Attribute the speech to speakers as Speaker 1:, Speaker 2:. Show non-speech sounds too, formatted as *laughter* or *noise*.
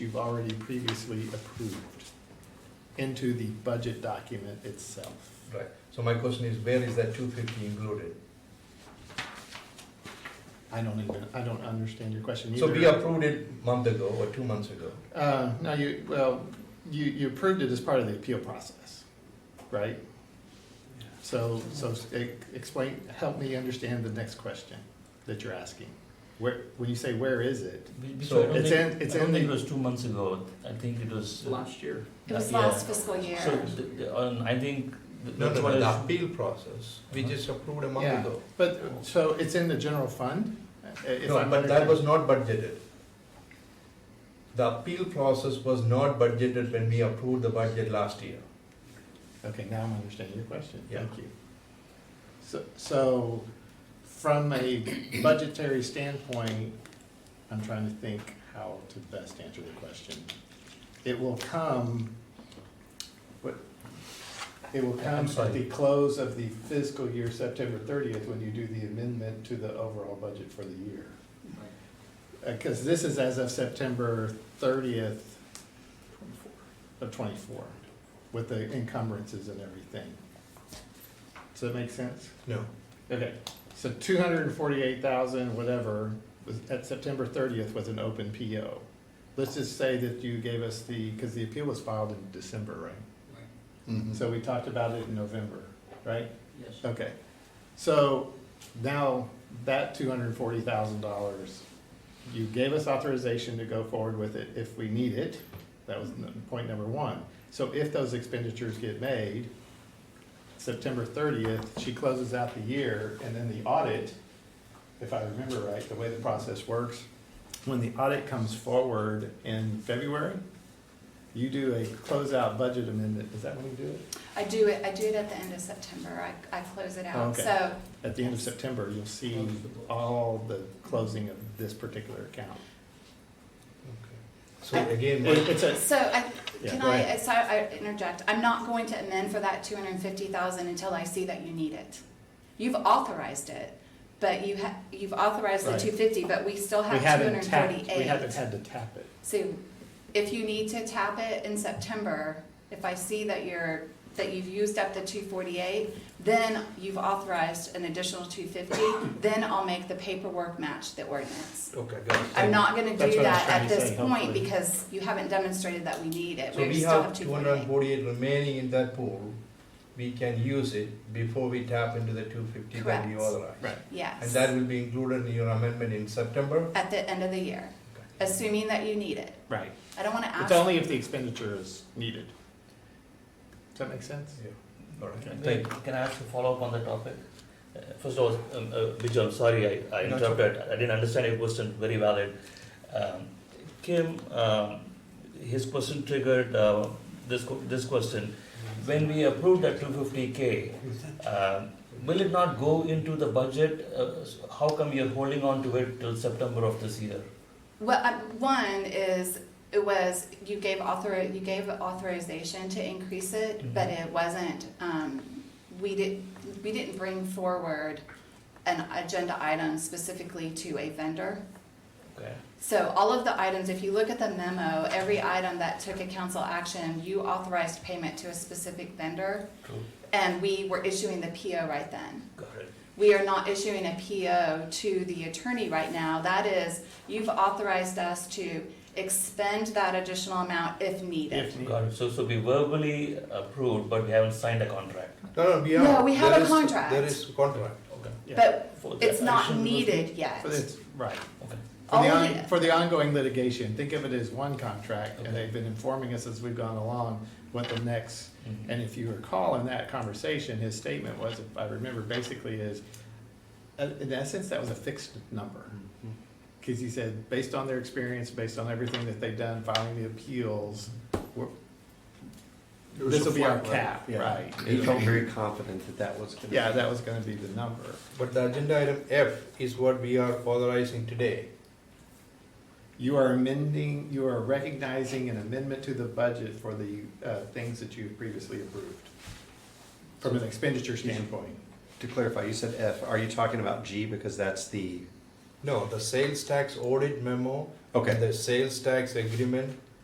Speaker 1: we've already previously approved into the budget document itself.
Speaker 2: Right, so my question is, where is that two fifty included?
Speaker 1: I don't even, I don't understand your question either.
Speaker 2: So we approved it month ago or two months ago.
Speaker 1: Uh, no, you, well, you, you approved it as part of the appeal process, right? So, so e- explain, help me understand the next question that you're asking. Where, when you say where is it?
Speaker 3: Be- be-
Speaker 2: So
Speaker 3: so I don't
Speaker 1: it's
Speaker 3: think-
Speaker 1: in- it's
Speaker 3: I don't
Speaker 1: in
Speaker 3: think
Speaker 1: the-
Speaker 3: it was two months ago, I think it was. uh,
Speaker 4: Last year.
Speaker 5: It was
Speaker 1: Uh,
Speaker 3: Yeah.
Speaker 5: last fiscal
Speaker 3: So,
Speaker 5: year.
Speaker 3: the- the- um, I think th-
Speaker 2: No,
Speaker 3: that's
Speaker 2: no,
Speaker 3: what
Speaker 2: no,
Speaker 3: I.
Speaker 2: the appeal process, we just approved a month
Speaker 1: Yeah.
Speaker 2: ago.
Speaker 1: But, so it's in the general fund? Uh, if
Speaker 2: No,
Speaker 1: I'm
Speaker 2: but that
Speaker 1: understanding-
Speaker 2: was not budgeted. The appeal process was not budgeted when we approved the budget last year.
Speaker 1: Okay, now I'm understanding your question,
Speaker 2: Yeah.
Speaker 1: thank you. So, so, from a budgetary standpoint, I'm trying to think how to best answer the question. It will come, what, it will
Speaker 2: I'm
Speaker 1: come at
Speaker 2: sorry.
Speaker 1: the close of the fiscal year, September thirtieth, when you do the amendment to the overall budget for the year. Because this is as of September thirtieth of twenty-four, with the encumbrances and everything. Does that make sense?
Speaker 2: No.
Speaker 1: Okay, so two hundred and forty-eight thousand, whatever, was at September thirtieth was an open PO. Let's just say that you gave us the, because the appeal was filed in December, right? So we talked about it in November, right?
Speaker 3: Yes.
Speaker 1: Okay, so now that two hundred and forty thousand dollars, you gave us authorization to go forward with it if we need it. That was n- point number one. So if those expenditures get made, September thirtieth, she closes out the year and then the audit, if I remember right, the way the process works, when the audit comes forward in February, you do a closeout budget amendment. Is that when you do it?
Speaker 5: I do it, I do it at the end of September. I, I close it out.
Speaker 1: Okay.
Speaker 5: So,
Speaker 1: At the end of September, you'll see all the closing of this particular account.
Speaker 2: So again,
Speaker 1: It-
Speaker 2: my-
Speaker 1: It's a,
Speaker 5: so I,
Speaker 1: Yeah,
Speaker 5: can
Speaker 1: go
Speaker 5: I,
Speaker 1: ahead.
Speaker 5: so I interject. I'm not going to amend for that two hundred and fifty thousand until I see that you need it. You've authorized it, but you ha, you've authorized the
Speaker 1: Right.
Speaker 5: two fifty, but we still
Speaker 1: we
Speaker 5: have two hundred
Speaker 1: haven't
Speaker 5: and
Speaker 1: tapped,
Speaker 5: forty-eight.
Speaker 1: we haven't had to tap it.
Speaker 5: So if you need to tap it in September, if I see that you're, that you've used up the two forty-eight, then you've authorized an additional two
Speaker 1: *coughs*
Speaker 5: fifty, then I'll make the paperwork match the ordinance.
Speaker 2: okay, got it.
Speaker 5: I'm not gonna
Speaker 1: That's
Speaker 5: do
Speaker 1: what I was
Speaker 5: that
Speaker 1: trying
Speaker 5: at
Speaker 1: to
Speaker 5: this
Speaker 1: say,
Speaker 5: point
Speaker 1: hopefully.
Speaker 5: because you haven't demonstrated that we need it.
Speaker 2: So
Speaker 5: We
Speaker 2: we
Speaker 5: still
Speaker 2: have
Speaker 5: have two
Speaker 2: two hundred and
Speaker 5: forty-eight.
Speaker 2: forty-eight remaining in that pool, we can use it before we tap into the two fifty that we
Speaker 5: Correct.
Speaker 2: authorized.
Speaker 1: Right.
Speaker 2: And
Speaker 5: Yes,
Speaker 2: that will be included in your amendment in September?
Speaker 5: at the end of the year, assuming that you need it.
Speaker 1: Right.
Speaker 5: I don't wanna
Speaker 1: It's
Speaker 5: ask,
Speaker 1: only if the expenditure is needed. Does that make sense?
Speaker 2: All right,
Speaker 3: Can-
Speaker 2: thank you.
Speaker 3: Can I ask a follow-up on the topic? Uh, First of all, um, uh, Bijal, I'm sorry I- I
Speaker 2: Not
Speaker 3: interrupted, I didn't understand your question, very valid. Um, Kim, um, his question triggered uh, this, que- this question. When we approved that 250K, um, will it not go into the budget? Uh, s- How come you're holding on to it till September of this year?
Speaker 5: well, I- one is, it was, you gave author, you gave authorization to increase it, but it wasn't, um, we did, we didn't bring forward an agenda item specifically to a vendor.
Speaker 3: Okay.
Speaker 5: So all of the items, if you look at the memo, every item that took a council action, you authorized payment to a specific vendor,
Speaker 3: True.
Speaker 5: and we were issuing the PO right then.
Speaker 3: Got it.
Speaker 5: We are not issuing a PO to the attorney right now. That is, you've authorized us to expend that additional amount if needed.
Speaker 1: If needed.
Speaker 3: Got it. So, so we verbally approved, but we haven't signed a contract.
Speaker 2: No, no, we
Speaker 5: No,
Speaker 2: are.
Speaker 5: we have
Speaker 2: there
Speaker 5: a
Speaker 2: is-
Speaker 5: contract.
Speaker 2: There is contract.
Speaker 3: Okay.
Speaker 1: Yeah.
Speaker 5: But
Speaker 3: For the
Speaker 5: it's not
Speaker 3: action-
Speaker 5: needed yet.
Speaker 1: But it's, right.
Speaker 3: Okay.
Speaker 1: For the,
Speaker 5: All
Speaker 1: on-
Speaker 5: the-
Speaker 1: for the ongoing litigation, think of it as one contract, and
Speaker 3: Okay.
Speaker 1: they've been informing us as we've gone along what the next
Speaker 3: Mhm.
Speaker 1: And if you recall in that conversation, his statement was, if I remember basically is, uh, in essence, that was a fixed number.
Speaker 2: Mm-hmm.
Speaker 1: Cause he said, based on their experience, based on everything that they've done, filing the appeals, we're- this will be our cap, right?
Speaker 6: He felt very confident that that was gonna.
Speaker 1: Yeah, that was gonna be the number.
Speaker 2: But the agenda item F is what we are authorizing today.
Speaker 1: You are amending, you are recognizing an amendment to the budget for the, uh, things that you previously approved. From an expenditure standpoint.
Speaker 6: To clarify, you said F, are you talking about G because that's the,
Speaker 2: No, the sales tax audit memo.
Speaker 6: Okay.
Speaker 2: and The sales tax agreement